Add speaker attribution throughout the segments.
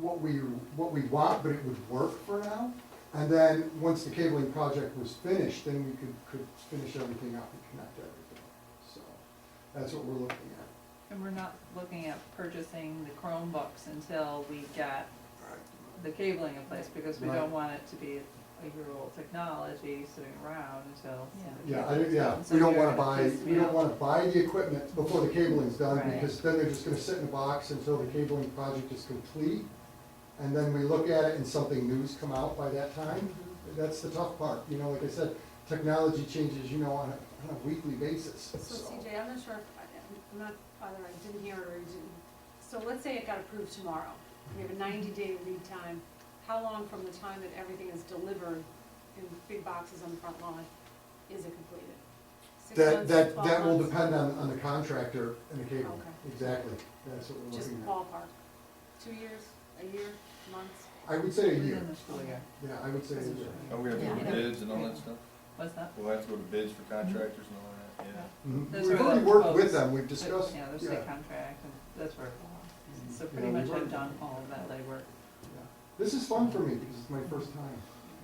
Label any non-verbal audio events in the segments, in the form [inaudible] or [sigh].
Speaker 1: what we, what we want, but it would work for now. And then, once the cabling project was finished, then we could, could finish everything up and connect everything. So, that's what we're looking at.
Speaker 2: And we're not looking at purchasing the Chromebooks until we got the cabling in place, because we
Speaker 1: Right.
Speaker 2: don't want it to be a year-old technology sitting around until. the
Speaker 1: Yeah, I,
Speaker 2: cabling's
Speaker 1: yeah,
Speaker 2: done. So
Speaker 1: we don't
Speaker 2: you're
Speaker 1: wanna
Speaker 2: gonna
Speaker 1: buy,
Speaker 2: piece
Speaker 1: we
Speaker 2: me
Speaker 1: don't
Speaker 2: out.
Speaker 1: wanna buy the equipment before the cabling's done,
Speaker 2: Right.
Speaker 1: because then they're just gonna sit in a box until the cabling project is complete. And then we look at it and something new's come out by that time, that's the tough part, you know, like I said, technology changes, you know, on a, on a weekly basis,
Speaker 3: So
Speaker 1: so.
Speaker 3: CJ, I'm not sure, if- I'm not, either I didn't hear it or you didn't. So let's say it got approved tomorrow. We have a ninety-day lead time. How long from the time that everything is delivered in big boxes on the front lawn is it completed? Six
Speaker 1: That,
Speaker 3: months,
Speaker 1: that,
Speaker 3: 12
Speaker 1: that will
Speaker 3: months?
Speaker 1: depend on, on the contractor and the cable,
Speaker 3: Okay.
Speaker 1: exactly, that's what we're
Speaker 3: Just
Speaker 1: looking at.
Speaker 3: ballpark. Two years, a year, months?
Speaker 1: I would say a year,
Speaker 2: Within the school year.
Speaker 1: yeah, I would say a year.
Speaker 4: And we have to go
Speaker 2: Yeah.
Speaker 4: to bids and all that stuff?
Speaker 2: What's that?
Speaker 4: We'll have to go to bids for contractors and all that, yeah.
Speaker 1: Mhm.
Speaker 2: Those
Speaker 1: We've
Speaker 2: are the
Speaker 1: already worked with
Speaker 2: proposed-
Speaker 1: them, we've
Speaker 2: But,
Speaker 1: discussed,
Speaker 2: Yeah, there's
Speaker 1: yeah.
Speaker 2: state contract, and that's where, it belongs. so pretty
Speaker 1: Yeah, we
Speaker 2: much
Speaker 1: work-
Speaker 2: I've done all of that legwork.
Speaker 1: Yeah. This is fun for me, because it's my first time.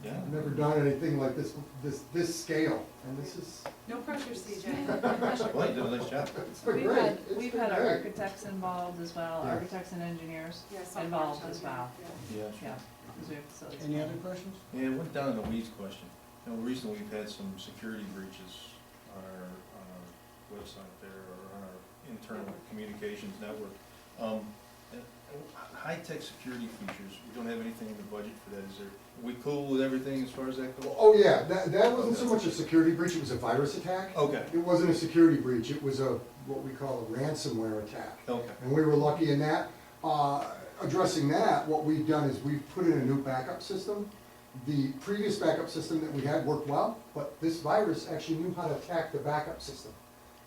Speaker 4: Yeah.
Speaker 1: I've never done anything like this, this, this scale, and this is,
Speaker 3: No pressure,
Speaker 2: [laughs]
Speaker 3: CJ.
Speaker 4: Well, you did a nice job.
Speaker 1: it's been
Speaker 2: We've
Speaker 1: great.
Speaker 2: had,
Speaker 1: It's
Speaker 2: we've
Speaker 1: been
Speaker 2: had our
Speaker 1: great.
Speaker 2: architects involved as well,
Speaker 1: Yeah.
Speaker 2: architects and engineers,
Speaker 3: Yeah, software
Speaker 2: Involved as
Speaker 3: something,
Speaker 2: well.
Speaker 3: yeah.
Speaker 4: Yeah,
Speaker 2: yeah.
Speaker 4: sure.
Speaker 2: 'cause we have facilities.
Speaker 5: Any other questions?
Speaker 4: Yeah, went down in the weeds question. You know, recently we've had some security breaches on our, on our website there, or on our internal communications network. Um, and, uh, high-tech security features, we don't have anything in the budget for that, is there? We cool with everything as far as that goes?
Speaker 1: Oh, yeah, that, that wasn't so much a security breach, it was a virus attack.
Speaker 4: Okay,
Speaker 1: It wasn't a security breach, it was a, what we call a ransomware attack.
Speaker 4: okay,
Speaker 1: And we were lucky in that. Uh, Addressing that, what we've done is we've put in a new backup system. The previous backup system that we had worked well, but this virus actually knew how to attack the backup system.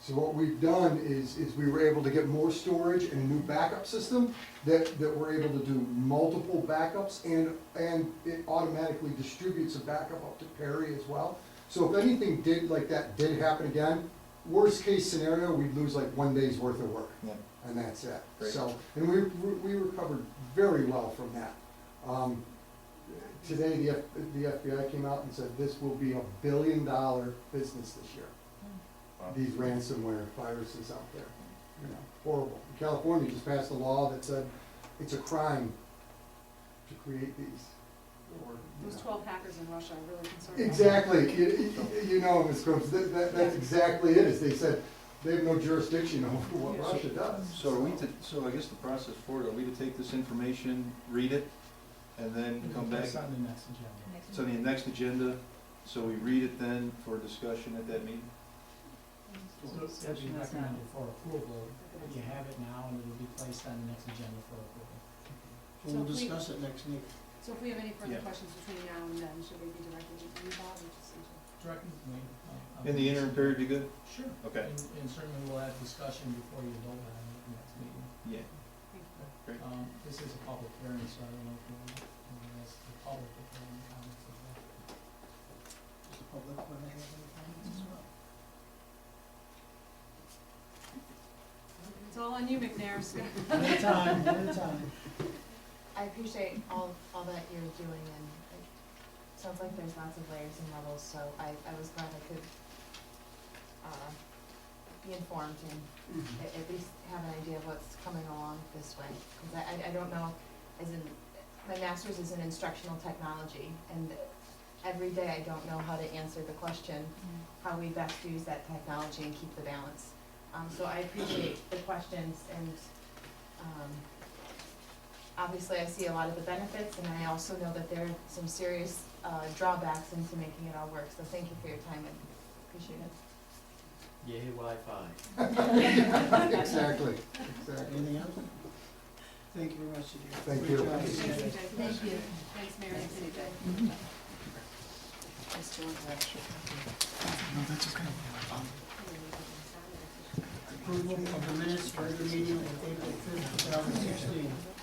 Speaker 1: So what we've done is, is we were able to get more storage and a new backup system that, that we're able to do multiple backups and, and it automatically distributes a backup up to Perry as well. So if anything did, like that did happen again, worst case scenario, we'd lose like one day's worth of work
Speaker 4: yeah.
Speaker 1: and that's it.
Speaker 4: Great.
Speaker 1: So, and we, we recovered very well from that. Um, Today, the F, the FBI came out and said this will be a billion dollar business this year,
Speaker 4: Wow.
Speaker 1: these ransomware viruses out there, you know, horrible. California just passed a law that said it's a crime to create these. or, you
Speaker 3: Those
Speaker 1: know.
Speaker 3: twelve hackers in Russia are really concerned.
Speaker 1: Exactly, you, you- you know, Ms. Combs, that, that, that's exactly it, is they said they have no jurisdiction over what Russia does.
Speaker 4: So are we to, so I guess the process for it, are we to take this information, read it, and then come back?
Speaker 5: Mm-hmm. That's on the next agenda.
Speaker 2: Next
Speaker 4: It's on the next agenda, so we read it then for discussion at that meeting?
Speaker 2: So
Speaker 5: It'll be
Speaker 2: discussion is not-
Speaker 5: recommended for approval, but you have it now and it'll be placed on the next agenda for approval.
Speaker 3: So
Speaker 5: We'll
Speaker 3: if we-
Speaker 5: discuss it next meeting.
Speaker 3: So if we have any further
Speaker 4: Yeah.
Speaker 3: questions between now and then, should we be directed to you, Bob, or just to
Speaker 5: Directly to me. I'll- I'll-
Speaker 4: In the interim period, be good?
Speaker 5: Sure.
Speaker 4: Okay.
Speaker 5: And and certainly we'll have discussion before you vote on it at the next meeting.
Speaker 4: Yeah. Great.
Speaker 5: Um, this is a public hearing, so I don't know if you want, to ask the public if they have any comments as [laughs] well. Does the public want to have any comments as well?
Speaker 3: It's all on you, McNair. so-
Speaker 5: One at a time, one at a time.
Speaker 6: I appreciate all, all that you're doing and it sounds like there's lots of layers and levels, so I, I was glad I could, uh, be informed and a- at, least have an idea of what's coming along this way. Cause I- I, I don't know, as in, my master's is in instructional technology and every day I don't know how to answer the question, how we best use that technology and keep the balance. Um, so I appreciate the questions and, um, obviously I see a lot of the benefits and I also know that there are some serious, uh, drawbacks into making it all work. So thank you for your time and appreciate it.
Speaker 7: Yay, Wi-Fi.
Speaker 1: [laughs] Exactly, exactly.
Speaker 5: Anything else? Thank you very much, Sudhir.
Speaker 1: Thank
Speaker 5: Great
Speaker 1: you.
Speaker 5: job.
Speaker 3: Thanks, CJ.
Speaker 6: Thank you.
Speaker 3: Thanks, Mary. CJ.
Speaker 6: Mr. Wojcicki.
Speaker 5: Approval of the minutes for the meeting of April fifth, two thousand sixteen.
Speaker 4: Um, uh,